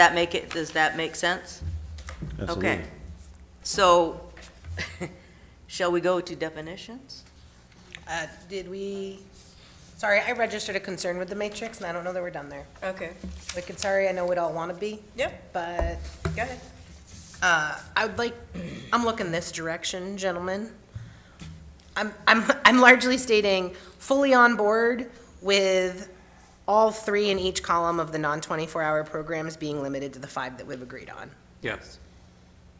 That make it, does that make sense? Okay. Absolutely. So, shall we go to definitions? Uh, Did we, sorry, I registered a concern with the matrix, and I don't know that we're done there. Okay, Wicked sorry, I know we'd all want to be, yep, but go ahead. uh, I would like, I'm looking this direction, gentlemen. I'm, I'm, I'm largely stating fully on board with all three in each column of the non-24 hour programs being limited to the five that we've agreed on. Yes.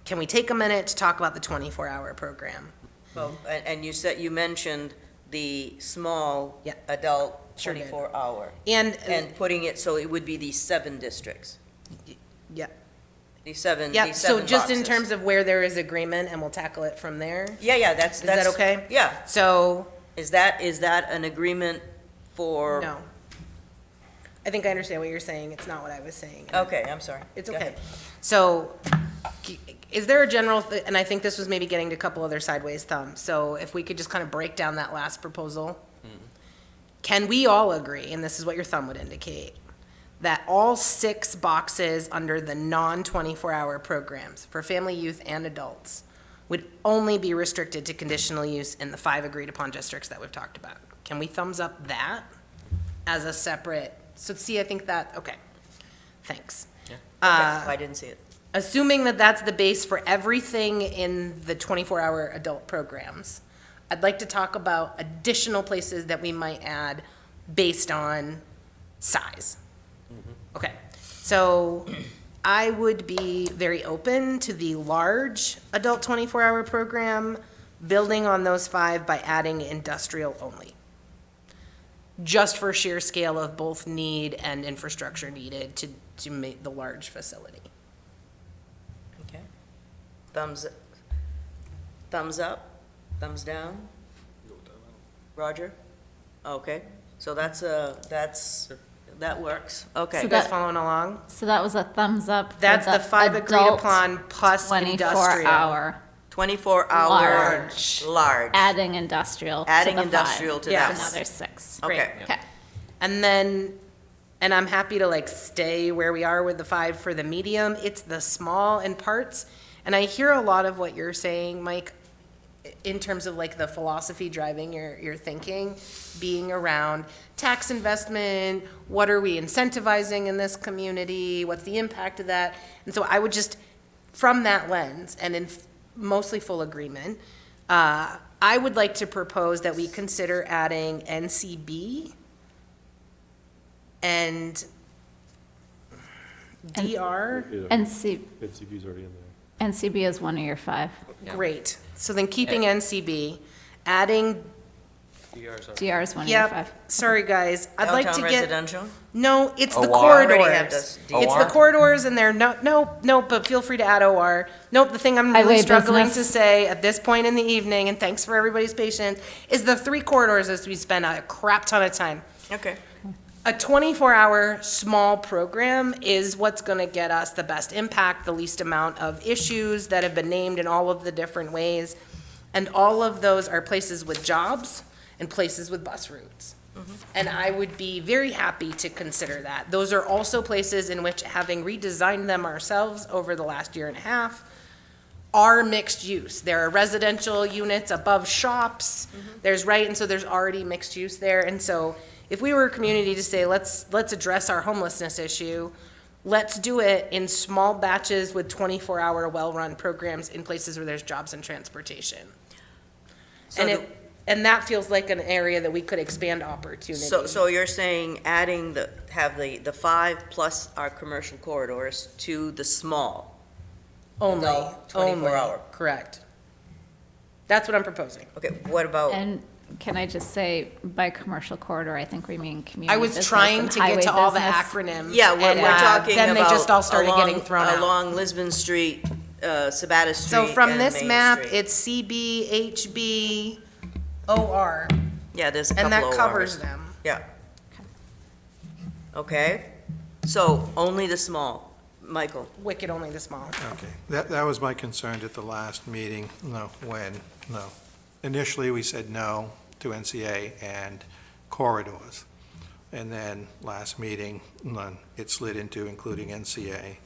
Can we take a minute to talk about the 24 hour program? Well, and, and you said, you mentioned the small Yeah. adult Sure did. Uh, twenty-four hour, And, and putting it so it would be these seven districts, yeah, these seven, yeah, these so seven just in boxes. terms of where there is agreement, and we'll tackle it from there. Yeah, yeah, that's, Is that that's. okay? Yeah, So, is that, is that an agreement for? no. I think I understand what you're saying. It's not what I was saying. Okay, I'm sorry. It's Go okay. ahead. So g- is there a general, th- and I think this was maybe getting to a couple other sideways thumbs. So if we could just kind of break down that last proposal. Hmm. Can we all agree, and this is what your thumb would indicate, that all six boxes under the non-24 hour programs for family, youth, and adults would only be restricted to conditional use in the five agreed upon districts that we've talked about? Can we thumbs up that as a separate, so see, I think that, okay, thanks. Okay, Uh, I didn't see it. Assuming that that's the base for everything in the 24-hour adult programs, I'd like to talk about additional places that we might add based on size. Okay, so I would be very open to the large adult 24-hour program, building on those five by adding industrial only. Just for sheer scale of both need and infrastructure needed to, to make the large facility. Okay. Thumbs, thumbs up, thumbs down? Roger? Okay, so that's a, that's, that works, okay. You So guys that- following along? So that was a thumbs up. for That's the five agreed adult upon plus Twenty-four industrial. hour, Twenty-four hour. Large. Large. adding industrial. to Adding the five. industrial to Yeah. that Yes. one. Another six. Okay. Great. Okay. And then, and I'm happy to like stay where we are with the five for the medium. It's the small and parts. And I hear a lot of what you're saying, Mike, in terms of like the philosophy driving your, your thinking, being around tax investment, what are we incentivizing in this community? What's the impact of that? And so I would just, from that lens and in f- mostly full agreement, uh, I would like to propose that we consider adding NCB and DR. Yeah, NC, NCB's already in there. NCB is one of your five. Great. So then keeping NCB, adding, DR is one of your yep, five. sorry, guys. I'd like to Downtown get. residential? No, it's the OR? Already have corridors. this. It's the OR? corridors and they're, no, no, no, but feel free to add OR. Nope, the thing I'm really Highway struggling to business. say at this point in the evening, and thanks for everybody's patience, is the three corridors as we spend a crap ton of time. Okay, A 24-hour small program is what's going to get us the best impact, the least amount of issues that have been named in all of the different ways. And all of those are places with jobs and places with bus routes. And I would be very happy to consider that. Those are also places in which, having redesigned them ourselves over the last year and a half, are mixed use. There are residential units above shops. Mm-hmm. There's, right, and so there's already mixed use there. And so if we were a community to say, let's, let's address our homelessness issue, let's do it in small batches with 24-hour well-run programs in places where there's jobs and transportation. So And the- it, and that feels like an area that we could expand opportunity. so, so you're saying adding the, have the, the five plus our commercial corridors to the small? Only, only. Adult, 24 hour. Correct. That's what I'm proposing. Okay, what Oh. about? And can I just say, by commercial corridor, I think we mean community I was business trying and to get highway to all the business. acronyms. Yeah, what and, we're uh, talking about. Then they just all started along- getting thrown out. Along Lisbon Street, uh, Sabata Street, So from and this Main map, Street. it's CB, HB, OR, Yeah, there's a couple and that of covers ours. them. Yeah. Okay, so only the small, Michael, Wicked only the small. Okay, that, that was my concern at the last meeting, no, when, no. Initially, we said no to NCA and corridors. And then, last meeting, none, it slid into including NCA.